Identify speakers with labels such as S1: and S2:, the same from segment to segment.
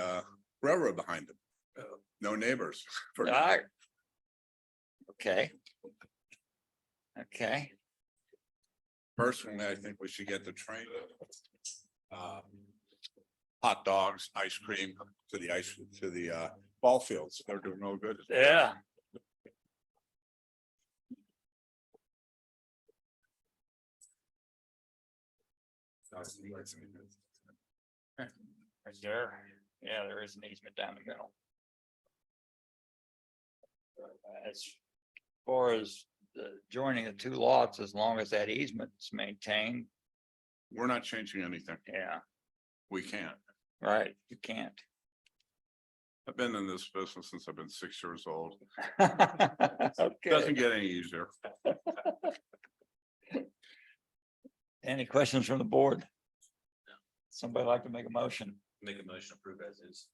S1: uh, railroad behind them. No neighbors. for now.
S2: Alright. Okay. Okay,
S1: Personally, I think we should get the train. uh, Hot dogs, ice cream to the ice, to the uh, ball fields. They're doing no good.
S2: yeah. Is there? Yeah, there is an easement down the middle. As far as the joining the two lots, as long as that easement's maintained,
S1: We're not changing anything.
S2: yeah,
S1: We can't.
S2: right, you can't.
S1: I've been in this business since I've been six years old. Doesn't
S2: Okay,
S1: get any easier.
S2: any questions from the board? Somebody like to make a motion?
S3: Make a motion to approve as is.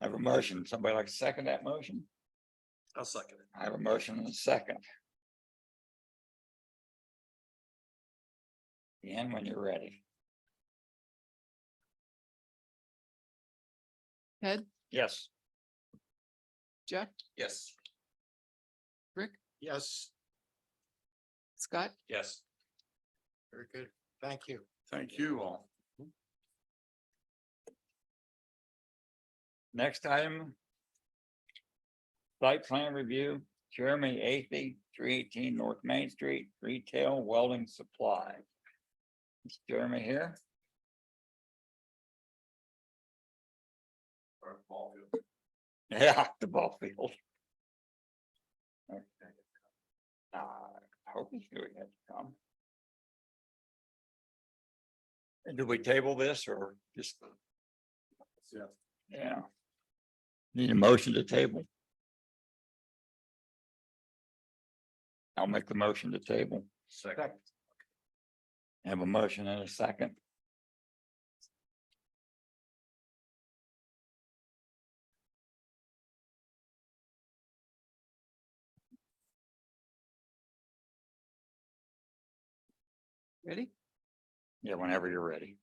S2: I have a motion. Somebody like to second that motion?
S3: I'll second it.
S2: I have a motion and a second. Ian, when you're ready.
S4: Ted?
S2: Yes.
S4: Jeff,
S3: Yes.
S4: Rick?
S3: Yes.
S4: Scott,
S3: Yes.
S5: Very good. Thank you.
S1: Thank you all.
S2: Next item. Site plan review, Jeremy Athy, three eighteen North Main Street, retail welding supply. Is Jeremy here? Yeah, the ball field. Okay. Uh, I hope he's doing it. um. And do we table this or just?
S3: Yeah.
S2: Yeah. Need a motion to table. I'll make the motion to table.
S3: Second.
S2: Have a motion and a second.
S4: ready?
S2: Yeah, whenever you're ready.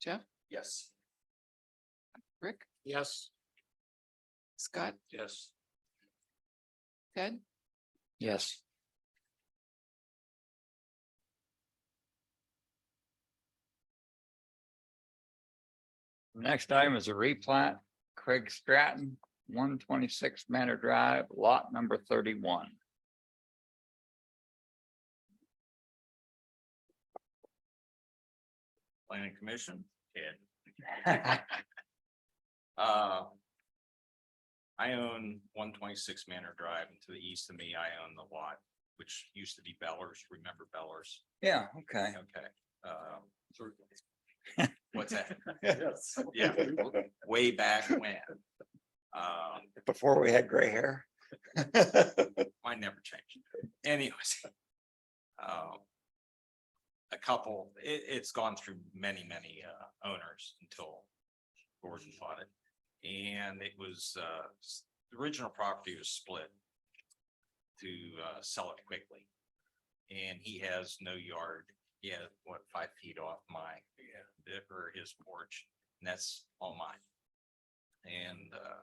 S4: Jeff,
S3: Yes.
S4: Rick,
S5: Yes,
S4: Scott,
S3: Yes.
S4: Ted,
S2: Yes. Next item is a replat, Craig Stratton, one twenty-six Manor Drive, lot number thirty-one.
S3: Planning Commission. Ted. Uh, I own one twenty-six Manor Drive and to the east of me, I own the lot, which used to be Bellers. Remember Bellers?
S2: Yeah, okay.
S3: Okay. Um What's that? Yes. Yeah, way back when. Um,
S2: Before we had gray hair.
S3: mine never changed. Anyways. um, A couple, it, it's gone through many, many, uh, owners until Gordon bought it. And it was, uh, s- the original property was split to, uh, sell it quickly. And he has no yard, he has, what, five feet off my, yeah, or his porch, and that's all mine. And, uh,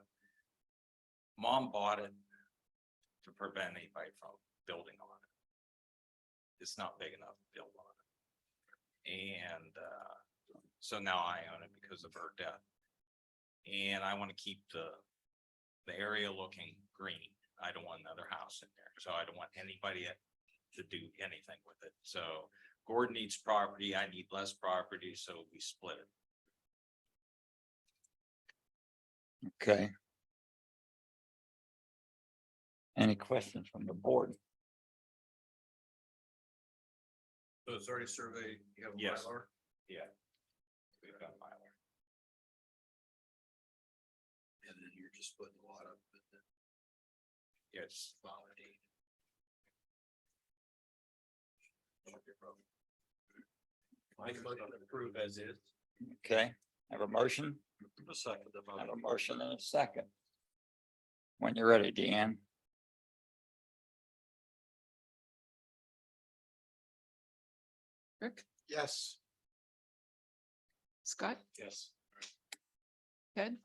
S3: mom bought it to prevent anybody from building on it. It's not big enough to build on it. And uh, so now I own it because of her death. And I want to keep the, the area looking green. I don't want another house in there, so I don't want anybody at- to do anything with it. So Gordon needs property, I need less property, so we split it.
S2: Okay. Any questions from the board?
S6: So it's already surveyed, you have a
S3: Yes.
S6: Mylar?
S3: Yeah. We've got Mylar.
S6: And then you're just putting a lot of.
S3: Yes. Validated.
S6: I can approve as is.
S2: Okay, have a motion,
S6: A second. the
S2: have
S6: motion.
S2: a motion and a second. When you're ready, Deanne.
S4: Rick,
S5: yes,
S4: Scott,
S3: Yes.
S4: Ted,